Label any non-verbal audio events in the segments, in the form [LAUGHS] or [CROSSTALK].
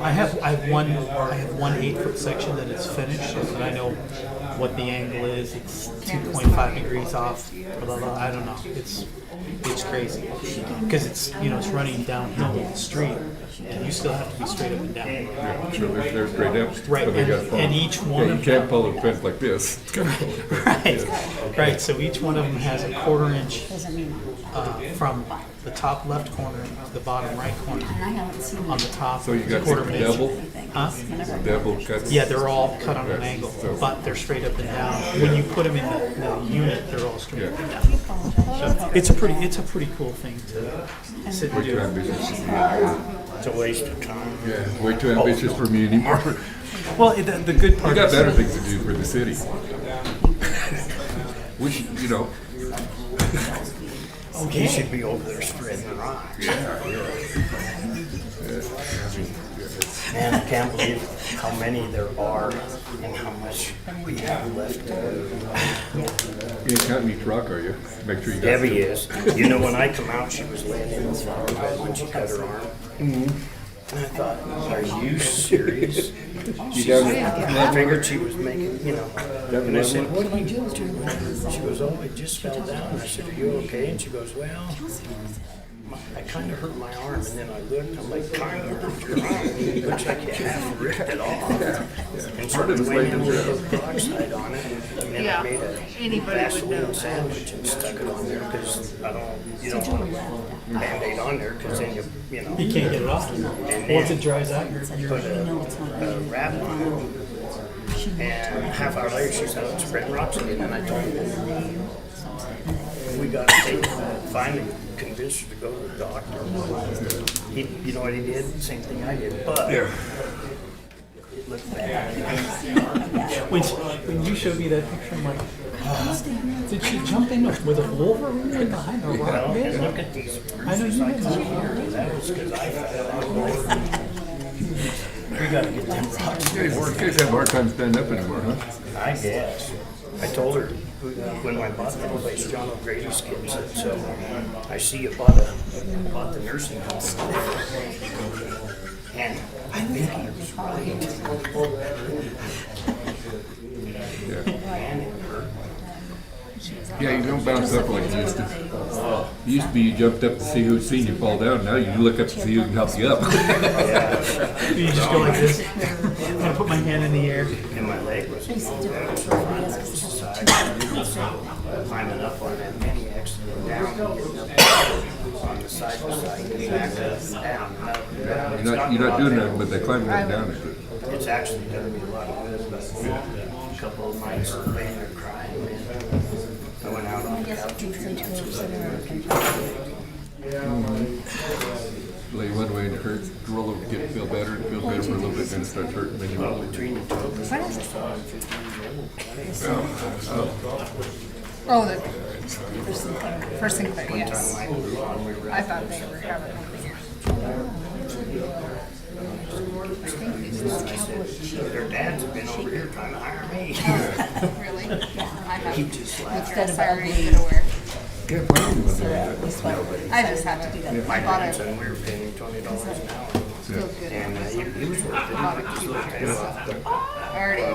I have, I have one, I have one eight foot section that is finished, and I know what the angle is, it's two point five degrees off, blah, blah, blah, I don't know, it's, it's crazy. Cause it's, you know, it's running downhill with the street, and you still have to be straight up and down. Yeah, sure, they're, they're straight up. Right, but they and- got phones. and each one Yeah, of you can't them- pull a fence like this. It's gotta pull a fence like this. [LAUGHS] Right, right, so each one of them has a quarter inch, Doesn't mean, uh, from the top left corner to the bottom right corner, and I haven't seen on the top, So you got quarter the inch. double? anything. Huh? Whenever I go Double cuts. Yeah, they're all cut on an Right, angle, so- but they're straight up and down. When you put them in the, the unit, they're all straight up and down. So it's a pretty, it's a pretty cool thing to sit and Too do. ambitious for me. It's a waste of time. Yeah, way too ambitious for me anymore. Well, it- the, the good We part got better is, things to do for [LAUGHS] the city. We should, you know, You should be over there spreading the rocks. Man, I can't believe how many there are and how much we have left to do. you ain't counting your truck, are you? Make sure you got. Debbie fuel. is. You know, when I come out, she was laying in the flower bed when she cut her arm. And I thought, are you serious? She done said- it? I figured she was making, you know. And I said, what are you doing to her? She goes, oh, it just fell down. I said, are you okay? And she goes, well, my- I kind of hurt my arm. And then I looked, I'm like, my arm, your arm. It looks like you [LAUGHS] half ripped it off. And sort Part of of it's went like in the with peroxide on it. And then I Yeah, made a anybody would know Vaseline that. sandwich and stuck it on there because I don't, you don't want to Band-Aid on there because then you, you know, you can't get it off. Once it dries out, you're, you're, put a, a wrap on it. And a half hour later, she said, "Oh, it's spreading rocks again, and I told her. We got to take, finally convinced her to go to the doctor. He, you know what he did? Same thing I did, but Yeah. it looked bad. when, she- when you showed me that picture, I'm like, "Ah, did she jump in with a wolverine in behind a rock? Well, man?" and look at these I know bruises you I guys got are- here. That was because I fell. We got to get them rocks. Yeah, you work- Kids have a hard time standing up anymore, huh? I guess. I told her when I bought that place, John O'Grady's kids said, so I see you bought a, bought the nursing home. And I think he was right. Man, it hurt. Yeah, you don't bounce up like this. It Used to be you jumped up to see who'd seen you fall down. Now you look up to see who can help you up. [LAUGHS] You just go like this. I'm gonna put my hand in the air. And my leg was. Climbing up on that maniacs and down. On the side to side, back up, down, up, down. It's You're not, you're not doing nothing, but they climb right down at you. It's actually gonna be a lot of good, but a couple of nights are laying there crying, man. I went out on the couch and Lay one way and it hurts, roll over, get, feel better, and feel better for a little bit, then it starts hurting, then you roll it. between the two of us, Oh, the first thing, Sinclair, yes. I thought they were having one here. their dads have been over here trying to hire me. Really? I He have. just laughed. That's already been aware. Yeah, why don't you wanna do I just have to do that. My I bought dad a said we were paying him twenty dollars an hour. feel good. And uh, I he he was worth it. bought a He was cute worth one. it. Already,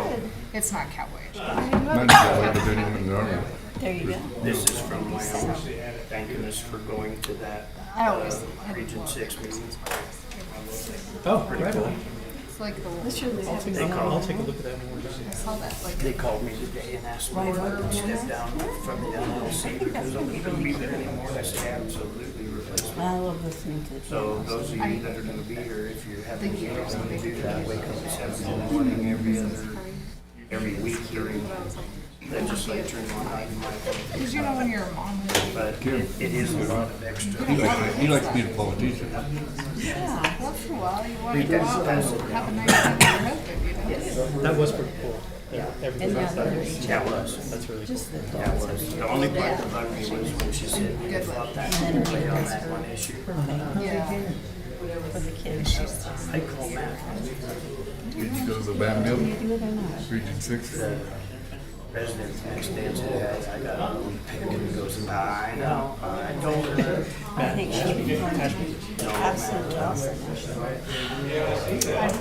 it's not cowboy. that? Mine's got like a bit in the army. There you go. This is from my own, thank goodness for going to that uh, I always, Region Six meeting. Oh, right on. it's like the, This year they have these They I'll called, take a look at that when we're done. I saw that, like, they called me today and asked me if I could step down from the LLC because I wouldn't be there anymore. I said, absolutely replace me. I love listening to it. So those of you that are gonna be here, if you have any meetings to do that, wake up at seven in the morning every other, every week during legislature and whatnot. you might- because you know when you're a mom, But it it is a lot of extra. He likes, he likes being a politician. yeah, once in a while, you want We to go did out pass and it. have a nice time with your husband, you know? That was pretty cool. Everything Yeah, else, there's That was, that's really cool. that was. The only part that bugged me was when she said, we felt that way on that one issue. Yeah. for the kids. I call Matt, Did you go to the Bam Mill? Region six? president the next day and said, "Hey, I got a little pick and he goes, I know, I told her. I think she's absolutely awesome.